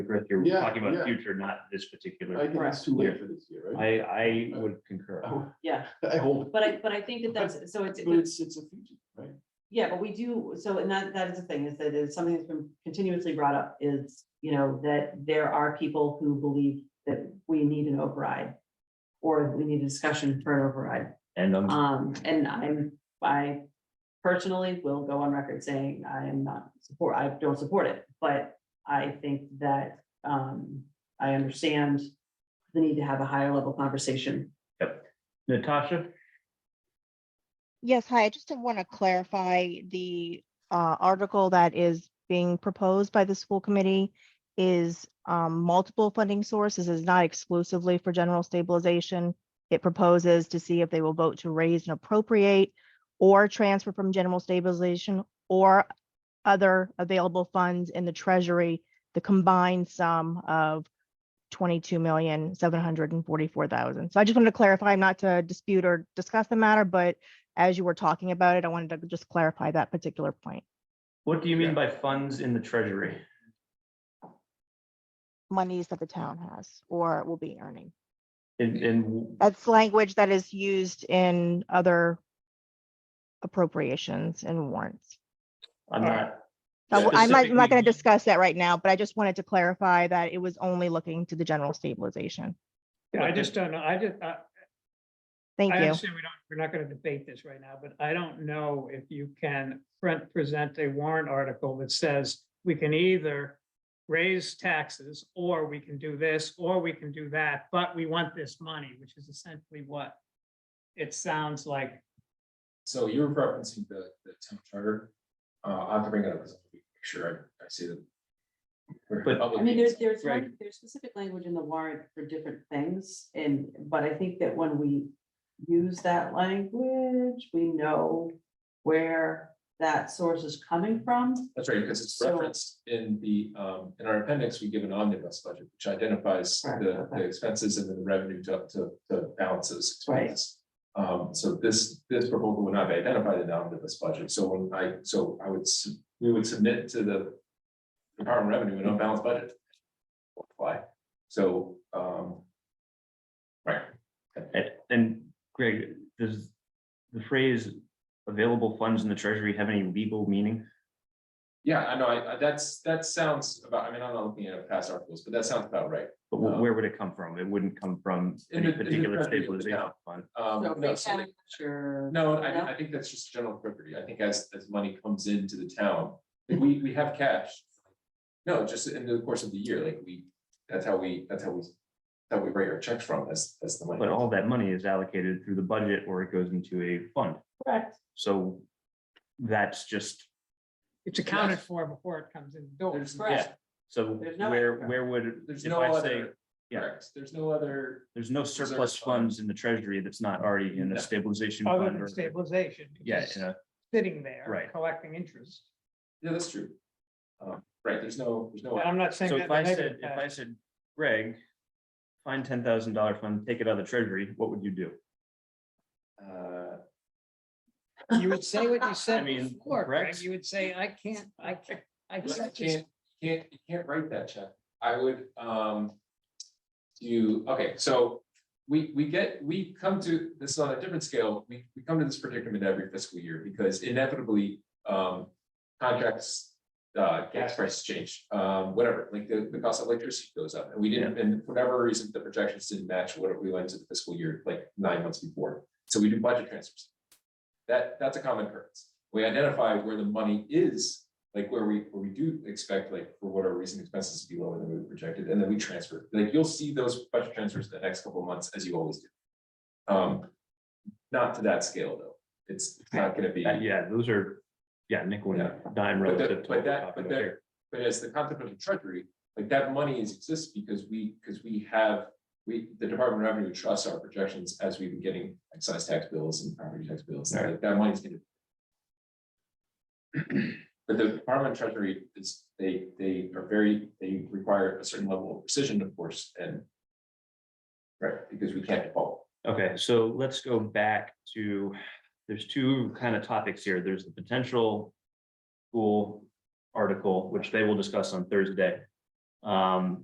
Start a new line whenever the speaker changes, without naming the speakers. Griff, you're
Yeah,
talking
yeah.
about future, not this
I
particular.
think it's too late for this year, right?
I, I would concur.
I-
yeah,
I hope,
but I, but I think that that's, so it's,
but it's, it's a future, right?
yeah, but we do, so, and that, that is the thing, is that it's something that's been continuously brought up, is, you know, that there are people who believe that we need an override. Or we need a discussion for an override.
And I'm,
Um, and I'm, I personally will go on record saying I am not support, I don't support it, but I think that, um, I understand the need to have a higher level conversation.
Natasha,
Yes, hi, I just want to clarify the uh, article that is being proposed by the school committee is um, multiple funding sources is not exclusively for general stabilization. It proposes to see if they will vote to raise and appropriate or transfer from general stabilization or other available funds in the treasury, the combined sum of twenty-two million, seven hundred and forty-four thousand. So I just wanted to clarify, not to dispute or discuss the matter, but as you were talking about it, I wanted to just clarify that particular point.
what do you mean by funds in the treasury?
Monies that the town has or will be earning.
And, and
That's language that is used in other appropriations and warrants.
I'm not,
I w- I'm not, I'm not
Specifically-
going to discuss that right now, but I just wanted to clarify that it was only looking to the general stabilization.
Yeah, I
Okay.
just don't know. I just, I,
Thank
I
you.
understand we don't, we're not gonna debate this right now, but I don't know if you can front present a warrant article that says we can either raise taxes, or we can do this, or we can do that, but we want this money, which is essentially what it sounds like.
So you're referencing the, the town charter. Uh, I'll have to bring it up, make sure I, I see that. We're
But-
public
I mean, there's, there's,
Right.
lang- there's specific language in the warrant for different things, and, but I think that when we use that language, we know where that source is coming from.
That's right, because it's
So-
referenced in the, um, in our appendix, we give an omnibus budget, which identifies
Right,
the, the
okay.
expenses and then the revenue to, to, to balance those
Right.
expenses. Um, so this, this proposal would not be identified in the omnibus budget, so when I, so I would, s- we would submit to the Department of Revenue an unbalanced budget. Why? So, um, right,
and- and Greg, does the phrase available funds in the treasury have any legal meaning?
Yeah, I know, I, I- that's, that sounds about, I mean, I'm not looking at past articles, but that sounds about right.
But wh- where would it come from? It wouldn't come from
In
any
the- in the
particular
treasury of the
stabilization
town.
fund.
Um,
So
no,
free
so like-
capture-
no, I,
No?
I think that's just general property. I think as, as money comes into the town, like, we, we have cash. No, just in the course of the year, like we, that's how we, that's how we, that we write our checks from, that's, that's the money.
But all that money is allocated through the budget or it goes into a fund.
Correct.
So that's just,
It's accounted for before it comes in the door.
There's,
Correct.
yeah,
so
There's no-
where, where would,
there's
if
no
I say,
other,
yeah.
correct, there's no other,
there's no
reserve
surplus
fund.
funds in the treasury that's not already in
No.
a stabilization
Other
fund
than
or,
Oh, stabilization. it's
yeah,
just
in a-
Sitting there.
Right.
Collecting interest.
yeah, that's true. Um, right, there's no, there's no.
And I'm not saying
so
that.
if
in a
I said,
negative
if
way.
I said, Greg, find ten thousand dollar fund, take it out of the treasury, what would you do?
uh,
You would say what you
I
said
mean,
before, Greg.
correct?
You would say, I can't, I can't, I
You
can't just
can't, you can't, you can't write that check. I would, um. You, okay, so we, we get, we come to this is on a different scale. We, we come to this predicament every fiscal year because inevitably, um. Contracts, uh, gas prices change, um, whatever, like the, the cost of electricity goes up and we didn't, and for whatever reason, the projections didn't match what we went to the fiscal year, like nine months before. So we do budget transfers. That, that's a common occurrence. We identify where the money is like where we, where we do expect, like, for whatever reason, expenses to be lower than we projected, and then we transfer, like, you'll see those budget transfers in the next couple of months, as you always do. Um, not to that scale, though, it's, it's not gonna be,
Uh, Yeah, those are, yeah, nickel and dime
But
relative
that-
to. what
but
we're
that-
talking
but
about
that-
here.
but as the concept of the treasury, like, that money is exists because we, because we have, we, the Department of Revenue trusts our projections as we've been getting excise tax bills and property tax bills, and like, that money's gonna But the Department of Treasury is, they, they are very, they require a certain level of precision, of course, and. Right, because we can't default.
Okay, so let's go back to, there's two kind of topics here. There's the potential school article, which they will discuss on Thursday. Um,